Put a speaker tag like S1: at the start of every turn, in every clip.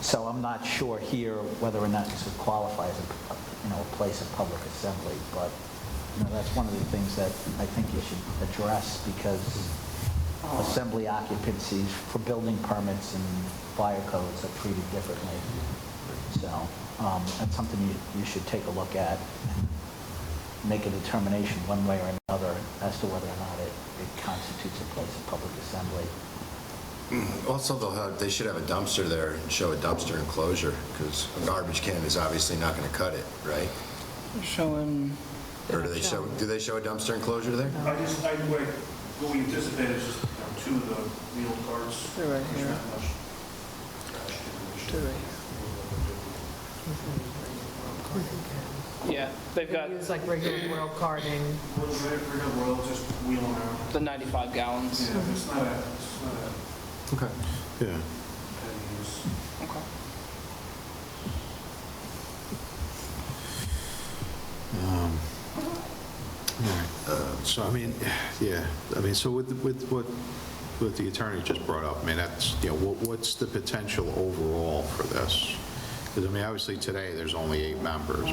S1: So I'm not sure here whether or not this would qualify as a, you know, a place of public assembly, but, you know, that's one of the things that I think you should address, because assembly occupancies for building permits and fire codes are treated differently. So, um, that's something you, you should take a look at, and make a determination one way or another as to whether or not it, it constitutes a place of public assembly.
S2: Also, they'll have, they should have a dumpster there and show a dumpster enclosure, because a garbage can is obviously not going to cut it, right?
S3: Showing,
S2: Or do they show, do they show a dumpster enclosure there?
S4: I just, I, what what we anticipate is just you know, two of the wheel carts.
S3: They're right
S4: There's
S3: here.
S4: not much trash generation.
S3: They're right
S5: Yeah, they've got
S6: It's like regular rail carding.
S4: Real- real- real world, just wheeling around.
S5: the 95 gallons.
S4: Yeah, it's not a, it's not a
S2: Okay.
S7: Yeah.
S4: heavy use.
S5: Okay.
S7: Uh, So, I mean, yeah, I mean, so with, with what, what the attorney just brought up, I mean, that's, you know, what, what's the potential overall for this? Because, I mean, obviously, today, there's only eight members.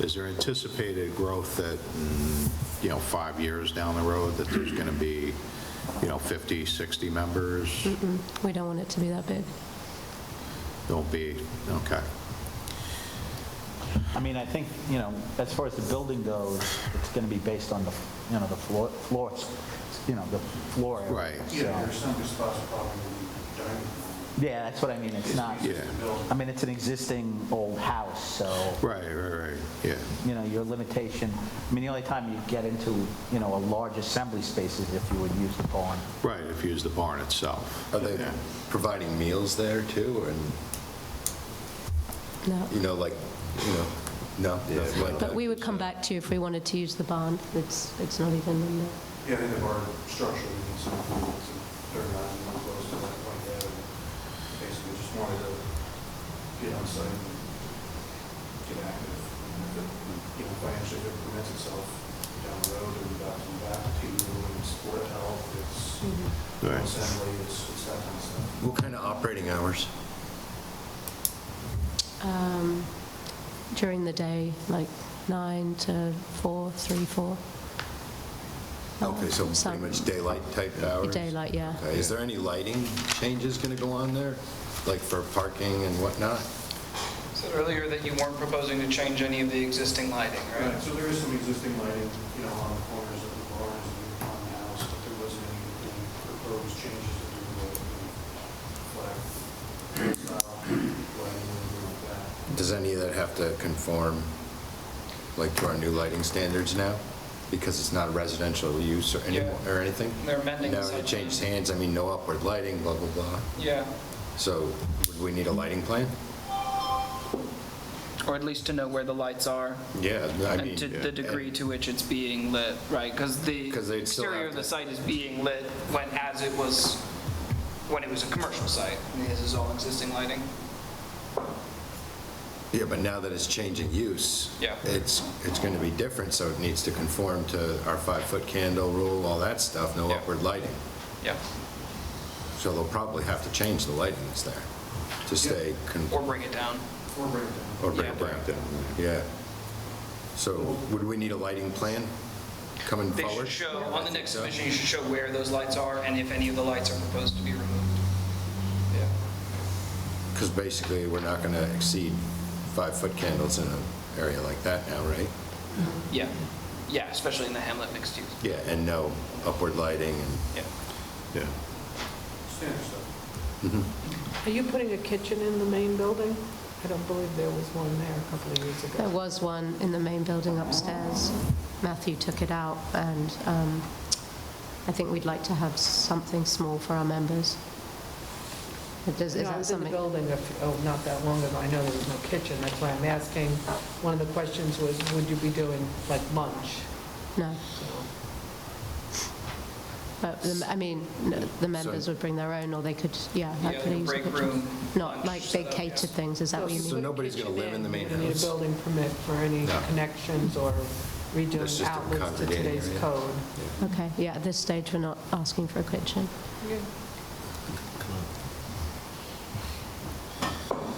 S7: Is there anticipated growth that, mm, you know, five years down the road, that there's going to be, you know, 50, 60 members?
S8: We don't want it to be that big.
S7: Don't be, okay.
S1: I mean, I think, you know, as far as the building goes, it's going to be based on the, you know, the floor, floors, you know, the floor. area.
S7: Right.
S4: Yeah,
S1: So-
S4: there's some good spots probably in the dining room.
S1: Yeah, that's what I mean, it's not,
S7: Yeah.
S1: I mean, it's an existing old house, so,
S7: Right, right, right, yeah,
S1: you know, your limitation, I mean, the only time you get into, you know, a large assembly space is if you would use the barn.
S7: right, if you use the barn itself.
S2: Are they
S7: Yeah.
S2: providing meals there too, and,
S8: No.
S2: you know, like, you know, no? nothing like
S8: But
S2: that?
S8: we would come back to you if we wanted to use the barn. It's, it's not even in there.
S4: Yeah, they have our structure, we need some, they're not even close to that point yet. and Basically, just wanted to get on site and get active. and if it, You know, financially, if it permits itself down the road and back and back to, and support health, it's
S7: Right.
S4: assembly, it's it's that kind of stuff.
S2: What kind of operating hours?
S8: Um, During the day, like 9 to 4, 3, 4.
S2: Okay, so pretty
S8: Some-
S2: much daylight type hours?
S8: Oh, Daylight, yeah.
S2: Okay, is there any lighting changes going to go on there, like for parking and whatnot?
S9: Said earlier that you weren't proposing to change any of the existing lighting,
S4: Right, so there is some existing lighting, you know, on the corners of the barns and on the house, but there wasn't any any proposed changes to do the flag, style, uh, lighting, or anything like that.
S2: Does any of that have to conform, like, to our new lighting standards now? Because it's not residential use or any,
S9: Yeah.
S2: or anything?
S9: They're amending the
S2: Now
S9: site plan.
S2: it changed hands, I mean, no upward lighting, blah, blah, blah.
S9: Yeah,
S2: So would we need a lighting plan?
S5: Or at least to know where the lights are
S2: Yeah, I mean.
S5: and to the degree to which it's being lit, right? Because the
S2: 'Cause they'd still
S5: exterior
S2: have
S5: of the
S2: to-
S5: site is being lit when, as it was, when it was a commercial site. I mean, This is all existing lighting.
S2: Yeah, but now that it's changing use.
S9: Yeah.
S2: It's, it's going to be different, so it needs to conform to our five-foot candle rule, all that stuff, no
S9: Yeah.
S2: upward lighting.
S9: yeah.
S2: So they'll probably have to change the lighting that's there to stay, con-
S5: Or bring it down.
S4: Or break it down.
S2: or bring it
S5: yeah.
S2: down. Yeah. So would we need a lighting plan coming
S9: They
S2: forward?
S9: should show, on the next submission, you should show where those lights are and if any of the lights are proposed to be removed. Yeah.
S2: Because basically, we're not going to exceed five-foot candles in an area like that now, right?
S5: Yeah, yeah, especially in the Hamlet mixed use.
S2: Yeah, and no upward lighting and,
S5: Yeah.
S7: Yeah.
S4: Standard stuff.
S6: Are you putting a kitchen in the main building? I don't believe there was one there a couple of years
S8: There
S6: ago.
S8: was one in the main building upstairs. Matthew took it out, and um, I think we'd like to have something small for our members. But does- Is
S6: No, I
S8: that
S6: was in the
S8: something?
S6: building, a few- oh, not that long ago, I know there was no kitchen, that's why I'm asking. One of the questions was, would you be doing like lunch?
S8: No.
S6: So,
S8: But, the- I mean, no, the members would bring their own, or they could, yeah. I
S9: Yeah,
S8: could
S9: like a
S8: use the
S9: break
S8: kitchen.
S9: room,
S8: Not
S9: lunch
S8: like they
S9: setup, yeah.
S8: catered things, is that what you
S6: So
S8: mean?
S2: so nobody's going to live in the main
S6: You need a
S2: house?
S6: building permit for any
S2: No.
S6: connections or
S2: That's
S6: redoing
S2: just a
S6: outlets to
S2: congregating
S6: today's
S2: area.
S6: code.
S8: Okay, yeah, at this stage, we're not asking for a kitchen.
S6: Yeah,